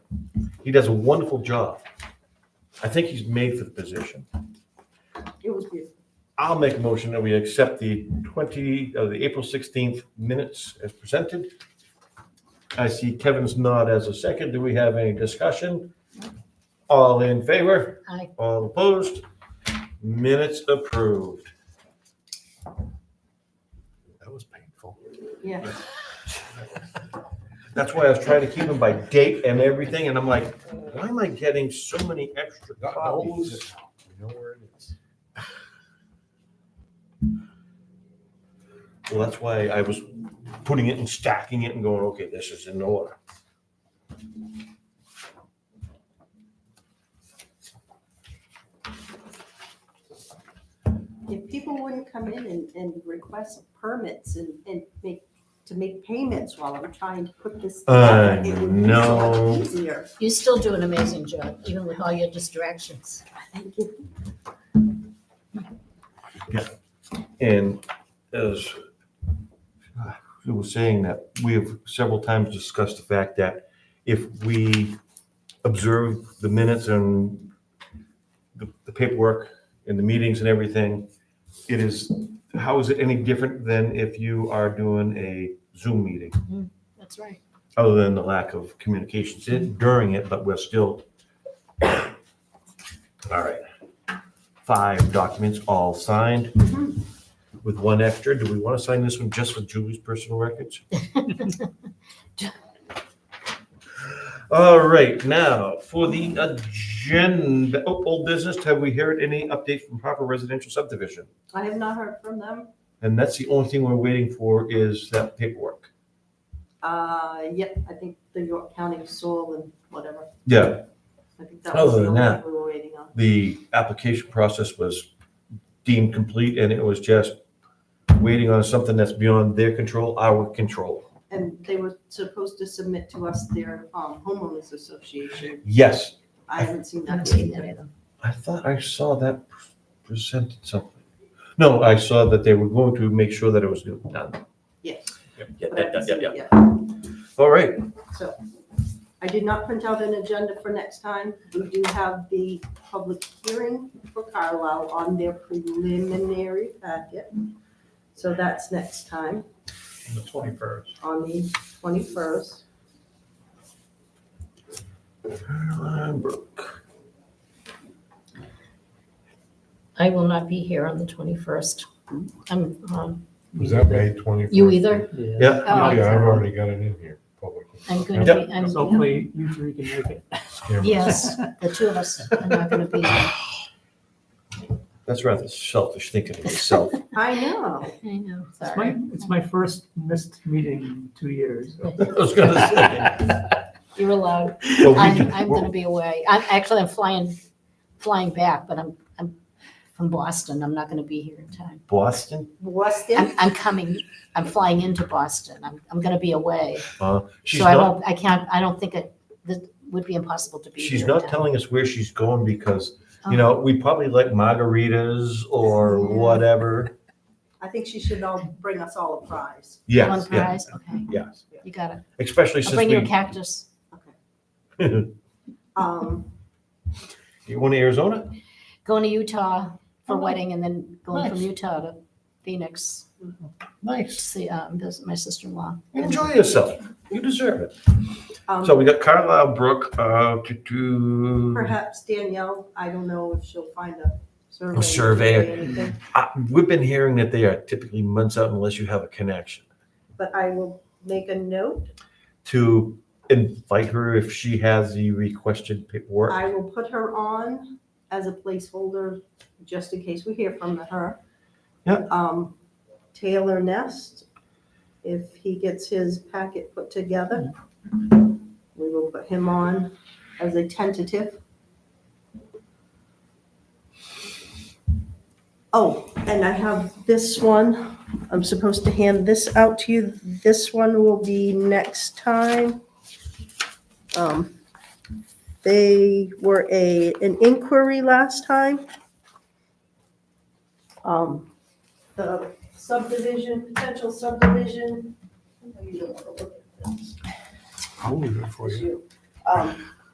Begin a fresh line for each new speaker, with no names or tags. He does a wonderful job. I think he's made for the position.
It was beautiful.
I'll make a motion that we accept the 20, uh, the April 16th minutes as presented. I see Kevin's nod as a second. Do we have any discussion? All in favor?
Aye.
All opposed? Minutes approved.
That was painful.
Yeah.
That's why I was trying to keep them by date and everything, and I'm like, why am I getting so many extra
That- that will be
copies?
it now. We know where it is.
Well, that's why I was putting it and stacking it and going, okay, this is in order.
If people wouldn't come in and, and request permits and, and make, to make payments while I'm trying to put this.
I
together, it would be so much
know.
Easier.
You still do an amazing job, even with all your distractions.
Thank you.
And as uh, who was saying that, we have several times discussed the fact that if we observe the minutes and the the paperwork and the meetings and everything, it is, how is it any different than if you are doing a Zoom meeting?
That's right.
other than the lack of communications in- during it, but we're still. All right. Five documents all signed with one extra. Do we want to sign this one just for Julie's personal records? All right, now for the agenda, oh, old business, have we heard any update from Harper Residential Subdivision?
I have not heard from them.
And that's the only thing we're waiting for is that paperwork.
Uh, yep, I think the York County soil and whatever.
Yeah,
I think that was
Other
the
than
only
that-
thing we were waiting on.
the application process was deemed complete and it was just waiting on something that's beyond their control, our control.
And they were supposed to submit to us their um, homeowners association.
Yes,
I haven't seen
I haven't
that.
seen
yet.
that either.
I thought I saw that presented something. No, I saw that they were going to make sure that it was done.
Yes,
Yeah, yeah,
but I
yeah,
haven't
yeah,
seen
yeah.
it yet.
All right,
So I did not print out an agenda for next time. We do have the public hearing for Carlisle on their preliminary packet. So that's next time
The twenty-first.
on the twenty-first.
Caroline Brooke.
I will not be here on the 21st. I'm, um,
Was that May twenty-first?
you either?
Yeah,
Oh,
Yeah, I've already got it in here, public.
I'm going to
Yep.
be, I'm,
So hopefully you three can make it.
Scam.
yes, the two of us are not going to be here.
that's rather selfish thinking of myself.
I know.
I know,
It's my,
sorry.
it's my first missed meeting in two years.
I was gonna say.
You're allowed.
Well, we
I'm,
can-
I'm going to be away. I'm, actually, I'm flying, flying back, but I'm, I'm from Boston. I'm not going to be here in time.
Boston,
I'm,
Weston,
I'm coming, I'm flying into Boston. I'm, I'm going to be away.
uh, she's
So I
not,
won't, I can't, I don't think it, that would be impossible to be here.
she's
in
not
time.
telling us where she's going because
Oh.
You know, we probably like margaritas or whatever.
I think she should all bring us all a prize.
One
Yes, yes,
prize, okay,
yes.
you got it.
Especially
I'll
since
bring you a
we,
cactus.
Um,
you want to Arizona?
Going to Utah for
Oh, nice.
wedding and then going from
Nice.
Utah to Phoenix to
Nice.
see, um, visit my sister-in-law.
Enjoy yourself. You deserve it.
um,
So um, we got Carlisle Brook, uh, to do,
Perhaps Danielle, I don't know if she'll find a survey.
A surveyor.
or anything,
Uh, we've been hearing that they are typically months out unless you have a connection.
But I will make a note.
To invite her if she has the requested paperwork.
I will put her on as a placeholder, just in case we hear from her.
Yep.
Um, Taylor Nest, if he gets his packet put together, we will put him on as a tentative. Oh, and I have this one. I'm supposed to hand this out to you. This one will be next time. Um, they were a, an inquiry last time. Um, The subdivision, potential subdivision. I know you don't wanna look at this,
I'll leave it for
it's
you.
you. Um,